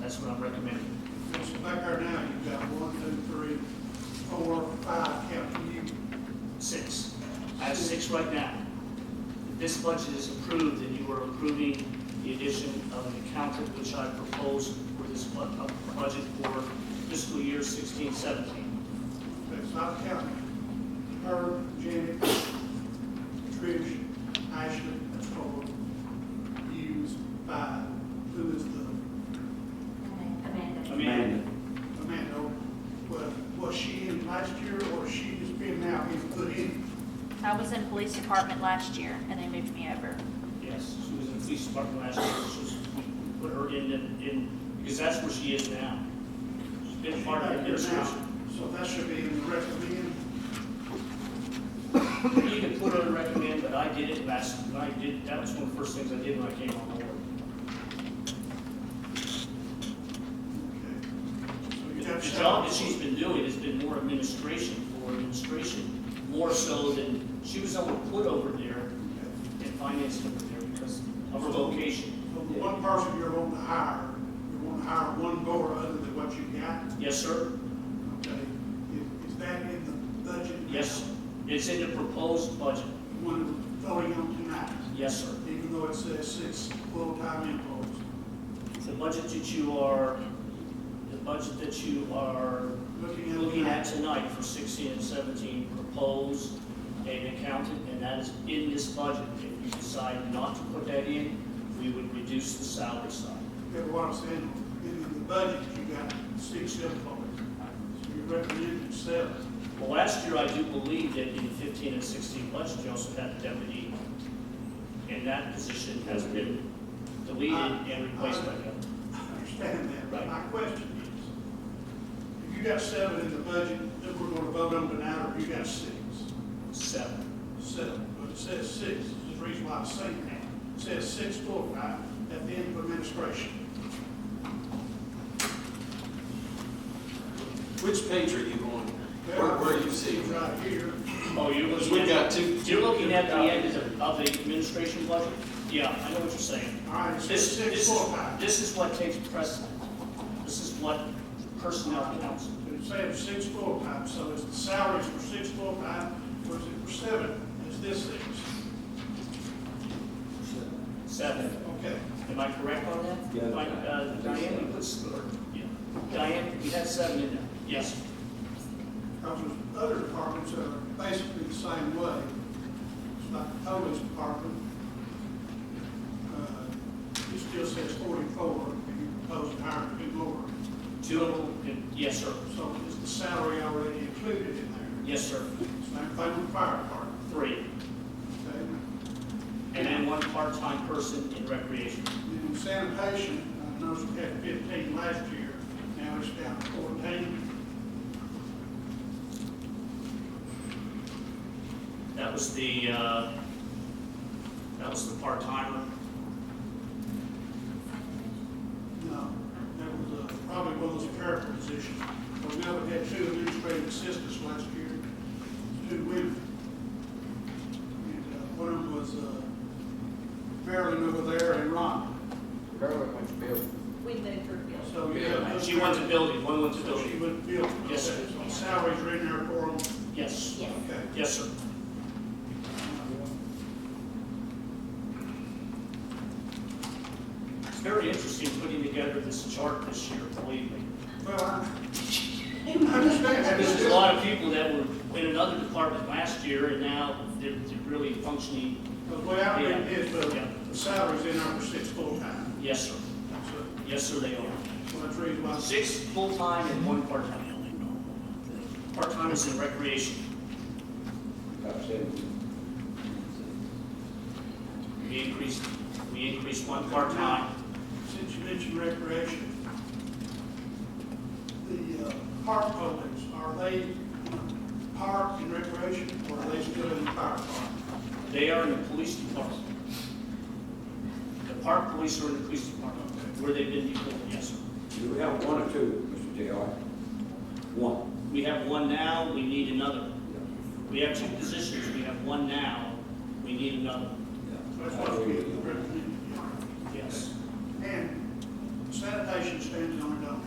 what I'm recommending. Yes, back there now, you've got one, two, three, four, five, counting you. Six. I have six right now. If this budget is approved, then you are approving the addition of an accountant, which I proposed for this bu- uh, budget for fiscal year 16, 17. That's not counting her, Janet, Trish, Ashley, that's four. Hughes, five. Who is the, Amanda. Amanda, Amanda, was, was she in last year or she has been now, he's put in? I was in police department last year and they moved me over. yes, she was in police department last year, so she- we put her in, in- in, because that's where she is now. She's been part of the Back there now. administration. So that should be in the recommend. You can put on recommend, but I did it last, when I did, that was one of the first things I did when I came on board. Okay. So you The got the job that she's been doing has been more administration for administration, more so than, she was able to put over there Okay. and finance over there because of her location. So the one person you're wanting to hire, you're wanting to hire one more other than what you got, Yes, sir? okay? Is- Is that in the budget? Yes. It's in the proposed budget. One we're voting on tonight, Yes, sir. even though it says six full-time employees. The budget that you are, the budget that you are Looking at. looking at tonight for 16 and 17, propose an accountant, and that is in this budget. If you decide not to put that in, we would reduce the salary side. That's what I'm saying, in the budget, you got six employees. So you're recommending seven. Well, last year, I do believe that in 15 and 16 budget, you also had a deputy, and that position has been deleted and replaced by that. I understand that, but Right. my question is, if you got seven in the budget that we're gonna vote on tonight, or you got six? Seven. seven, but it says six, there's a reason why I'm saying that. It says six full-time at the end of administration. Which page are you on? Where, where you see it? Right here, Oh, you're Because looking we at, got two. you're looking at the end of the, of the administration budget? Yeah, I know what you're saying. all right, it says This, six this is, full-time, this is what takes precedent. This is what personnel counts. but it says six full-time, so is the salaries for six full-time, or is it for seven, is this six? Seven. Okay, Am I correct on that? Yeah. Mike, uh, Diane, you put, s- or, yeah. Diane, you had seven in there? Yes. because there's other departments that are basically the same way. It's like the police department, uh, it still says forty-four, and you propose to hire two more. Two of them, and- yes, sir. So is the salary already included in there? Yes, sir. Same thing with fire department, Three. okay? And And then one part-time person in recreation. Then sanitation, I noticed we uh, had fifteen last year, now it's down to fourteen. That was the, uh, that was the part-timer. No, that was uh, probably one of those clerical positions. But we only had two administrative assistants last year, two women. And uh, one of them was uh, Marilyn over there and Ron. We moved her bill. So you have those She went to building, one went to So she building. wouldn't feel, Yes, so sir. salaries are in there for them, Yes. Yes. okay? Yes, sir. It's very interesting putting together this chart this year, believe me. Well, I I understand that. There's a lot of people that were in another department last year, and now they're they're really functioning, The way I read it is, Yeah. the the salary's in there for six full-time. yes, sir. So Yes, sir, they are. so that's the reason why. Six full-time and one part-time. Part-time is in recreation. We increased, we increased one part-time. Since you mentioned recreation, the uh, park buildings, are they park and recreation, or are they still in the fire department? They are in the police department. The park police are in the police department, where they've been before, yes, sir. Do we have one or two, Mr. J.R.? One. We have one now, we need another. We have two positions, we have one now, we need another. That's what I'm getting, recommend.